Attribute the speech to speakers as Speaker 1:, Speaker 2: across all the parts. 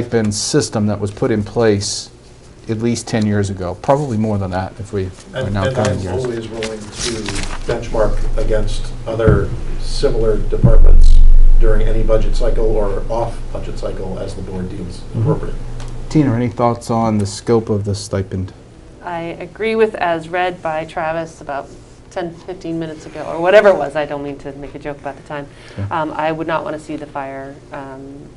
Speaker 1: stipend system that was put in place at least 10 years ago, probably more than that if we are
Speaker 2: And
Speaker 1: now
Speaker 2: and
Speaker 1: counting
Speaker 2: I'm
Speaker 1: years.
Speaker 2: always willing to benchmark against other similar departments during any budget cycle or off-budget cycle as the board deems appropriate.
Speaker 1: Tina, any thoughts on the scope of the stipend?
Speaker 3: I agree with as read by Travis about 10, 15 minutes ago, or whatever it was, I don't mean to make a joke about the time.
Speaker 1: Yeah.
Speaker 3: Um, I would not want to see the fire um,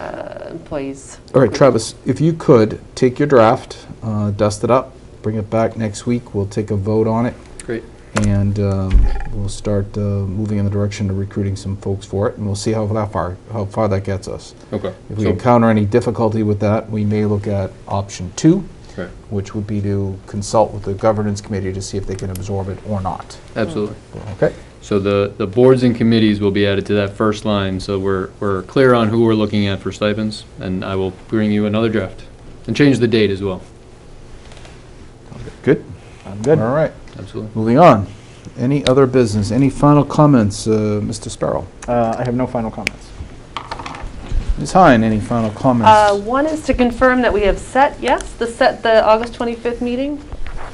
Speaker 3: uh, employees.
Speaker 1: All right, Travis, if you could, take your draft, uh, dust it up, bring it back next week, we'll take a vote on it,
Speaker 4: Great.
Speaker 1: and um, we'll start uh, moving in the direction of recruiting some folks for it, and we'll see how that far, how far that gets us.
Speaker 4: Okay.
Speaker 1: If we
Speaker 4: So-
Speaker 1: encounter any difficulty with that, we may look at option two,
Speaker 4: Right.
Speaker 1: which would be to consult with the governance committee to see if they can absorb it or not.
Speaker 4: Absolutely.
Speaker 1: Okay?
Speaker 4: So the, the boards and committees will be added to that first line, so we're, we're clear on who we're looking at for stipends, and I will bring you another draft. And change the date as well.
Speaker 1: Good? I'm good. All right,
Speaker 4: Absolutely.
Speaker 1: moving on. Any other business? Any final comments, uh, Mr. Starl?
Speaker 5: Uh, I have no final comments.
Speaker 1: Ms. Hine, any final
Speaker 3: Uh,
Speaker 1: comments?
Speaker 3: One is to confirm that we have set, yes, the set, the August 25th meeting,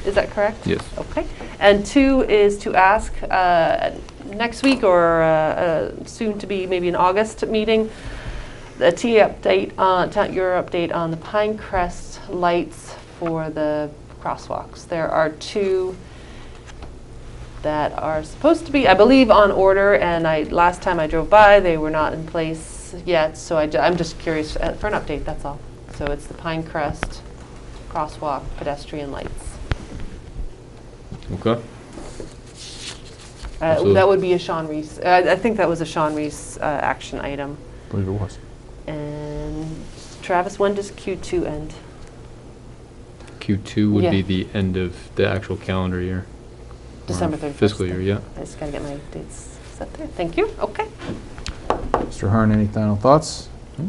Speaker 3: is that correct?
Speaker 4: Yes.
Speaker 3: Okay. And two is to ask uh, next week or uh, uh, soon to be maybe an August meeting, the TA update, on- ta- your update on the Pine Crest lights for the crosswalks. There are two that are supposed to be, I believe, on order, and I, last time I drove by, they were not in place yet, so I, am just curious uh, for an update, that's all. So it's the Pine Crest crosswalk pedestrian lights.
Speaker 4: Okay.
Speaker 3: Uh,
Speaker 4: Absolutely.
Speaker 3: That would be a Sean Reese, Uh, I I think that was a Sean Reese uh, action item.
Speaker 1: I believe it was.
Speaker 3: And Travis, when does Q2 end?
Speaker 4: Q2 would be
Speaker 3: Yeah.
Speaker 4: the end of the actual calendar year.
Speaker 3: December 31st?
Speaker 4: Fiscal year, yeah.
Speaker 3: I just got to get my dates set there. Thank you, okay.
Speaker 1: Mr. Hearn, any final thoughts? Hmm?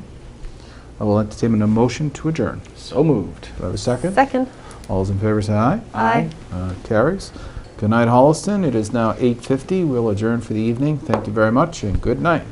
Speaker 1: I will entertain a motion to adjourn.
Speaker 5: So moved.
Speaker 1: Do I have a second?
Speaker 3: Second.
Speaker 1: All those in favor say aye.
Speaker 3: Aye.
Speaker 1: Uh, Carries. Good night, Holliston. It is now 8:50. We'll adjourn for the evening. Thank you very much, and good night.